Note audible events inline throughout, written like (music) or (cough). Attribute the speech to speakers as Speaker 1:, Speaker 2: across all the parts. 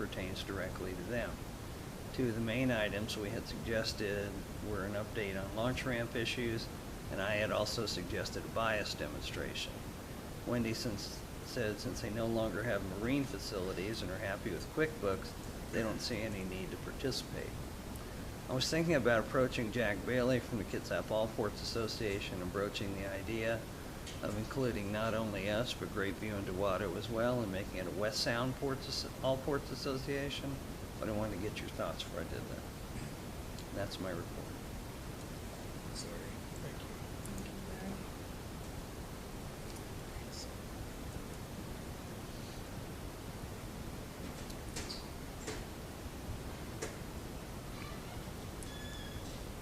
Speaker 1: pertains directly to them. Two of the main items we had suggested were an update on launch ramp issues, and I had also suggested a bias demonstration. Wendy since, said since they no longer have marine facilities and are happy with QuickBooks, they don't see any need to participate. I was thinking about approaching Jack Bailey from the Kitsap All Ports Association and broaching the idea of including not only us, but Great View and Dewato as well, and making it a West Sound Ports, Asso- All Ports Association, but I wanted to get your thoughts before I did that. That's my report.
Speaker 2: Sorry, thank you.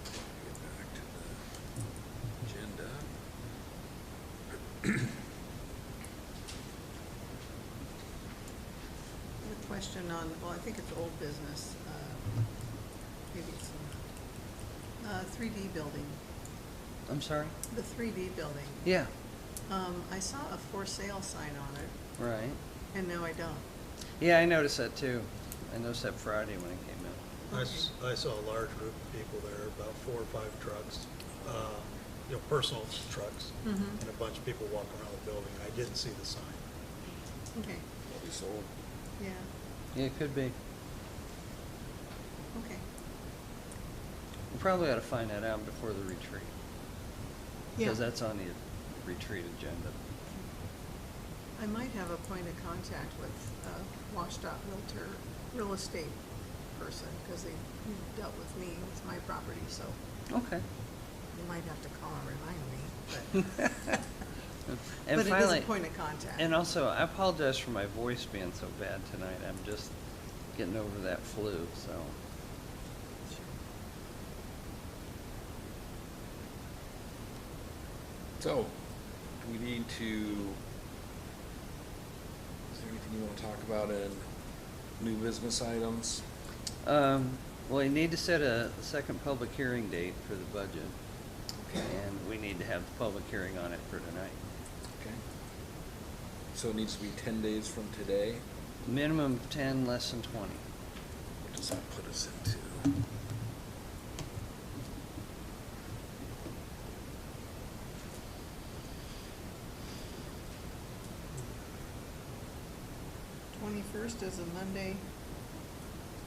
Speaker 2: Get back to the agenda.
Speaker 3: A question on, well, I think it's old business, uh, maybe it's not. Uh, 3D building,
Speaker 1: I'm sorry?
Speaker 3: the 3D building.
Speaker 1: Yeah,
Speaker 3: Um, I saw a for sale sign on it,
Speaker 1: right.
Speaker 3: and no, I don't.
Speaker 1: Yeah, I noticed that too. I noticed that Friday when it came out.
Speaker 4: I, s- I saw a large group of people there, about four or five trucks, uh, you know, personal trucks,
Speaker 3: Mhm.
Speaker 4: and a bunch of people walking around the building. I didn't see the sign.
Speaker 3: Okay,
Speaker 2: Will be sold.
Speaker 3: yeah,
Speaker 1: Yeah, it could be.
Speaker 3: okay.
Speaker 1: We probably ought to find that out before the retreat.
Speaker 3: Yeah.
Speaker 1: Because that's on the retreat agenda.
Speaker 3: I might have a point of contact with a WashDOT Realtor, real estate person, because they dealt with me, with my property, so
Speaker 1: Okay.
Speaker 3: you might have to call and remind me, but.
Speaker 1: (laughs) And
Speaker 3: But it is
Speaker 1: finally,
Speaker 3: a point of contact.
Speaker 1: and also, I apologize for my voice being so bad tonight. I'm just getting over that flu, so.
Speaker 2: So, we need to, is there anything you wanna talk about in new business items?
Speaker 1: Um, well, you need to set a second public hearing date for the budget. And we need to have the public hearing on it for tonight.
Speaker 2: Okay. So it needs to be ten days from today,
Speaker 1: Minimum of ten, less than twenty.
Speaker 2: what does that put us into?
Speaker 3: Twenty-first is a Monday.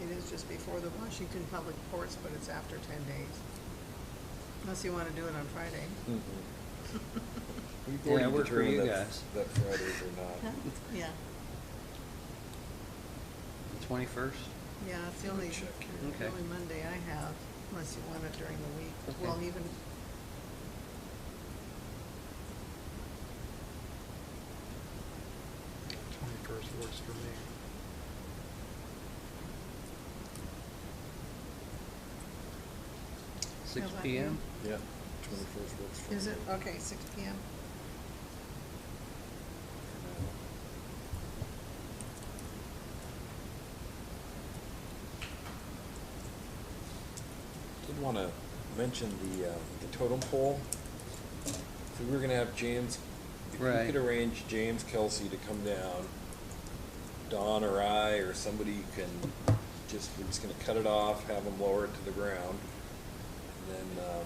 Speaker 3: It is just before the Washington Public Ports, but it's after ten days. Unless you wanna do it on (laughs) Friday.
Speaker 2: Mhm. We've
Speaker 1: Yeah,
Speaker 2: already
Speaker 1: work for you
Speaker 2: determined that-
Speaker 1: guys.
Speaker 2: That Fridays are
Speaker 3: Huh?
Speaker 2: not.
Speaker 3: Yeah,
Speaker 1: Twenty-first?
Speaker 3: yeah, it's the
Speaker 2: Let me
Speaker 3: only,
Speaker 2: check here.
Speaker 3: the
Speaker 1: Okay.
Speaker 3: only Monday I have, unless you want it during the week.
Speaker 1: Okay.
Speaker 3: Well, even,
Speaker 4: Twenty-first works for me.
Speaker 1: Six
Speaker 3: Eleven.
Speaker 1: P M?
Speaker 2: Yeah, twenty-first works for me.
Speaker 3: is it, okay, six P M?
Speaker 2: Did want to mention the, uh, the totem pole. So we were gonna have James, if you
Speaker 1: Right.
Speaker 2: could arrange James Kelsey to come down, Don or I or somebody can just, we're just gonna cut it off, have them lower it to the ground. And then, um,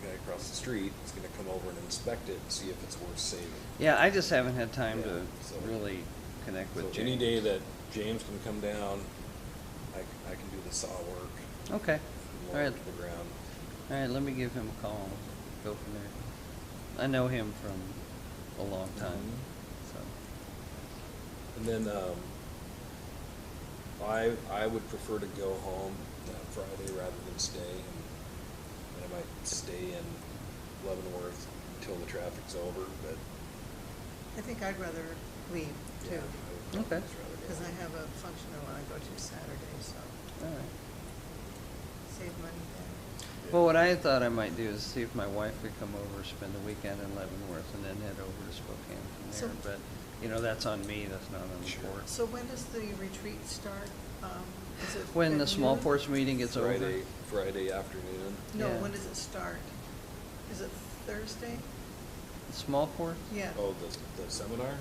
Speaker 2: the guy across the street is gonna come over and inspect it and see if it's worth saving.
Speaker 1: Yeah, I just haven't had time
Speaker 2: Yeah,
Speaker 1: to
Speaker 2: so-
Speaker 1: really connect
Speaker 2: So
Speaker 1: with James.
Speaker 2: any day that James can come down, I, c- I can do the saw work.
Speaker 1: Okay,
Speaker 2: and
Speaker 1: all
Speaker 2: lower
Speaker 1: right,
Speaker 2: it to the ground.
Speaker 1: all right, let me give him a call, and go from there. I know him from a long time,
Speaker 2: Mhm.
Speaker 1: so.
Speaker 2: And then, um, I, I would prefer to go home that Friday rather than stay. And and I might stay in Leavenworth until the traffic's over, but.
Speaker 3: I think I'd rather leave
Speaker 2: yeah,
Speaker 3: too,
Speaker 2: I would
Speaker 1: Okay.
Speaker 2: just rather go
Speaker 3: because I
Speaker 2: home.
Speaker 3: have a function I wanna go to Saturday, so
Speaker 1: All right.
Speaker 3: save money there.
Speaker 2: Yeah.
Speaker 1: Well, what I had thought I might do is see if my wife would come over, spend the weekend in Leavenworth, and then head over to
Speaker 3: So-
Speaker 1: Spokane from there. But, you know, that's on me, that's not on the
Speaker 2: Sure.
Speaker 1: board.
Speaker 3: So when does the retreat start? Um, is it
Speaker 1: When
Speaker 3: at
Speaker 1: the small
Speaker 3: noon?
Speaker 1: force meeting gets over.
Speaker 2: Friday, Friday afternoon.
Speaker 3: No,
Speaker 1: Yeah.
Speaker 3: when does it start? Is it Thursday?
Speaker 1: Small force?
Speaker 3: Yeah,
Speaker 2: Oh, the, the seminar?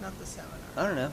Speaker 3: not the seminar.
Speaker 1: I don't know.